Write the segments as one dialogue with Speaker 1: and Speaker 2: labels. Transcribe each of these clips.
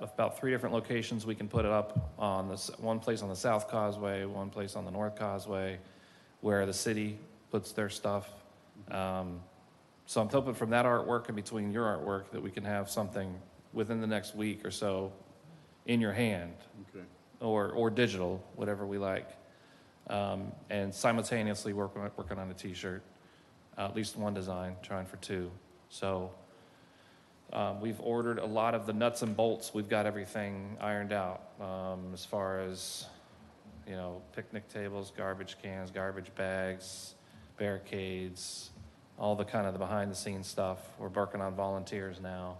Speaker 1: about three different locations we can put it up on this, one place on the South Causeway, one place on the North Causeway, where the city puts their stuff. Um, So I'm hoping from that artwork and between your artwork that we can have something within the next week or so in your hand
Speaker 2: Okay.
Speaker 1: or, or digital, whatever we like. Um, and simultaneously working, on- working on a t-shirt, uh, at least one design, trying for two. So, um, we've ordered a lot of the nuts and bolts. We've got everything ironed out, um, as far as, you know, picnic tables, garbage cans, garbage bags, barricades, all the kind of the behind the scenes stuff. We're working on volunteers now.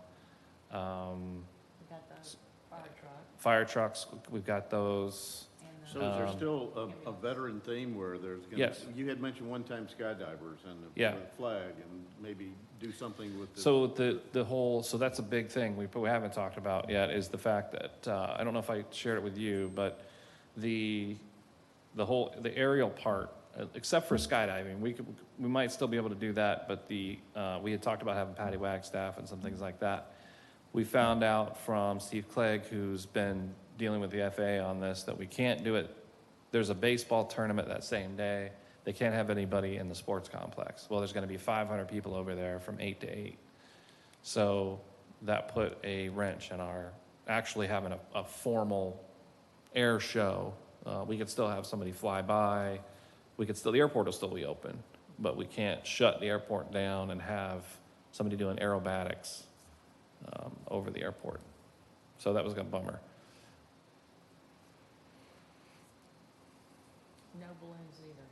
Speaker 1: Um,
Speaker 3: We got the fire truck
Speaker 1: fire trucks, we've got those.
Speaker 3: and the.
Speaker 2: So is there
Speaker 1: Um,
Speaker 2: still a, a veteran theme where there's gonna?
Speaker 1: Yes.
Speaker 2: You had mentioned one time skydivers and the-
Speaker 1: Yeah.
Speaker 2: the flag and maybe do something with the.
Speaker 1: So the, the whole, so that's a big thing we, we haven't talked about yet is the fact that, uh, I don't know if I shared it with you, but the, the whole, the aerial part, uh, except for skydiving, we could, we might still be able to do that, but the, uh, we had talked about having Patty Wagstaff and some things like that. We found out from Steve Clegg, who's been dealing with the FAA on this, that we can't do it. There's a baseball tournament that same day. They can't have anybody in the sports complex. Well, there's going to be 500 people over there from 8 to 8. So that put a wrench in our actually having a, a formal air show. Uh, we could still have somebody fly by. We could still, the airport will still be open, but we can't shut the airport down and have somebody doing aerobatics um, over the airport. So that was a bummer.
Speaker 3: No balloons either.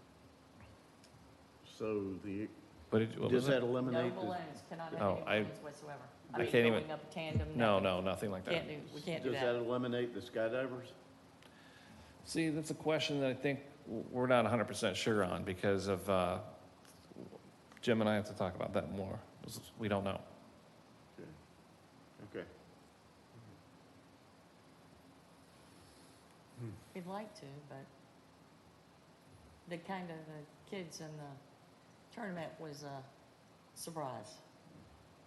Speaker 2: So the,
Speaker 1: But it, what
Speaker 2: does
Speaker 1: was it?
Speaker 2: that
Speaker 3: No
Speaker 2: eliminate, the-
Speaker 3: balloons, cannot
Speaker 1: Oh,
Speaker 3: have
Speaker 1: I-
Speaker 3: any balloons whatsoever.
Speaker 1: I
Speaker 3: mean,
Speaker 1: can't even-
Speaker 3: Going up a tandem.
Speaker 1: No,
Speaker 3: nothing.
Speaker 1: no, nothing like that.
Speaker 3: Can't do, we can't do
Speaker 2: does that
Speaker 3: that.
Speaker 2: eliminate the skydivers?
Speaker 1: See, that's a question that I think w- we're not 100% sure on because of, uh, Jim and I have to talk about that more. We don't know.
Speaker 2: Okay. Okay.
Speaker 3: We'd like to, but the kind of the kids in the tournament was a surprise.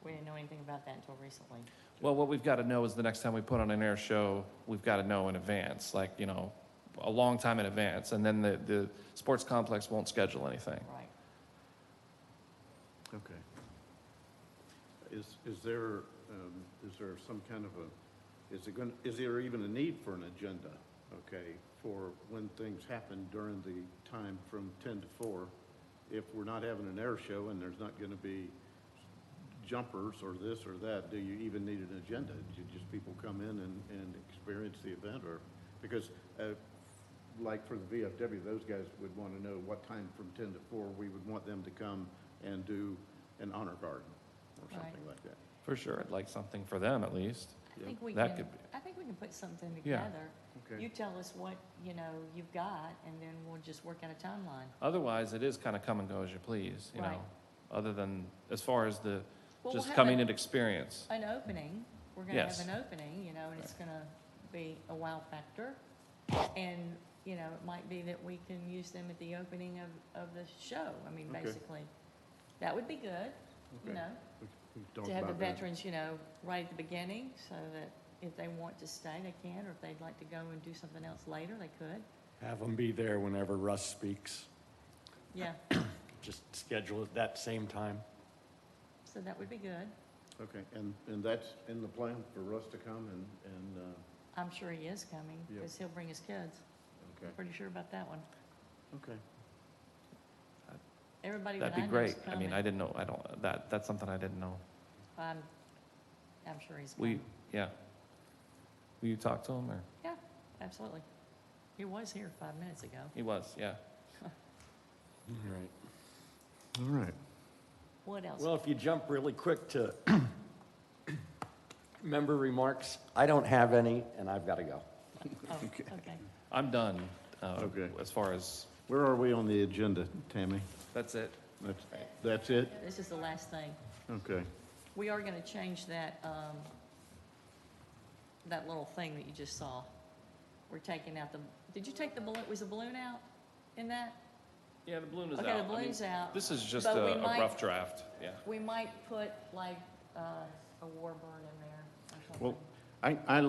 Speaker 3: We didn't know anything about that until recently.
Speaker 1: Well, what we've got to know is the next time we put on an air show, we've got to know in advance, like, you know, a long time in advance, and then the, the sports complex won't schedule anything.
Speaker 3: Right.
Speaker 2: Okay. Is, is there, um, is there some kind of a, is it gonna, is there even a need for an agenda? Okay, for when things happen during the time from ten to four? If we're not having an air show and there's not gonna be jumpers or this or that, do you even need an agenda? Do just people come in and, and experience the event or, because, uh, like for the VFW, those guys would want to know what time from ten to four, we would want them to come and do an honor garden or
Speaker 3: Right.
Speaker 2: something like that.
Speaker 1: For sure, I'd like something for them at least.
Speaker 3: I think we
Speaker 1: That
Speaker 3: can,
Speaker 1: could be-
Speaker 3: I think we can put something
Speaker 1: Yeah.
Speaker 3: together. You
Speaker 2: Okay,
Speaker 3: tell us what, you know, you've got, and then we'll just work out a timeline.
Speaker 1: Otherwise, it is kind of come and go as you please, you know,
Speaker 3: Right.
Speaker 1: other than, as far as the,
Speaker 3: Well, we'll
Speaker 1: just
Speaker 3: have
Speaker 1: coming
Speaker 3: a-
Speaker 1: and experience.
Speaker 3: an opening, we're gonna
Speaker 1: Yes.
Speaker 3: have an opening, you know, and it's gonna be a wow factor. And, you know, it might be that we can use them at the opening of, of the show, I mean,
Speaker 2: Okay.
Speaker 3: basically. That would be good, you
Speaker 2: Okay.
Speaker 3: know,
Speaker 2: We- we talked
Speaker 3: to have the
Speaker 2: about that.
Speaker 3: veterans, you know, right at the beginning, so that if they want to stay, they can, or if they'd like to go and do something else later, they could.
Speaker 4: Have them be there whenever Russ speaks.
Speaker 3: Yeah,
Speaker 4: Just schedule it that same time.
Speaker 3: so that would be good.
Speaker 2: Okay, and, and that's in the plan for us to come and, and, uh,
Speaker 3: I'm sure he is coming,
Speaker 2: Yeah.
Speaker 3: because he'll bring his kids,
Speaker 2: okay,
Speaker 3: pretty sure about that one.
Speaker 2: okay.
Speaker 3: Everybody that
Speaker 1: That'd
Speaker 3: I
Speaker 1: be
Speaker 3: know is
Speaker 1: great. I mean, I
Speaker 3: coming.
Speaker 1: didn't know, I don't, that, that's something I didn't know.
Speaker 3: I'm, Um, I'm sure he's coming.
Speaker 1: We, yeah. Will you talk to him or?
Speaker 3: Yeah, absolutely. He was here five minutes ago.
Speaker 1: He was, yeah.
Speaker 4: Right.
Speaker 2: All right.
Speaker 3: What else?
Speaker 4: Well, if you jump really quick to member remarks, I don't have any, and I've got to go.
Speaker 3: Oh, okay.
Speaker 1: I'm done, uh,
Speaker 2: Okay.
Speaker 1: as far as,
Speaker 2: Where are we on the agenda, Tammy?
Speaker 1: that's it.
Speaker 2: That's, that's it?
Speaker 3: This is the last thing.
Speaker 2: Okay,
Speaker 3: We are gonna change that, um, that little thing that you just saw. We're taking out the, did you take the balloon, was the balloon out in that?
Speaker 1: Yeah, the balloon is out.
Speaker 3: Okay, the
Speaker 1: I mean,
Speaker 3: balloon's out.
Speaker 1: This is just
Speaker 3: But
Speaker 1: a
Speaker 3: we
Speaker 1: a
Speaker 3: might-
Speaker 1: rough draft, yeah.
Speaker 3: We might put like, uh, a warbird in there or something.
Speaker 2: well, I, I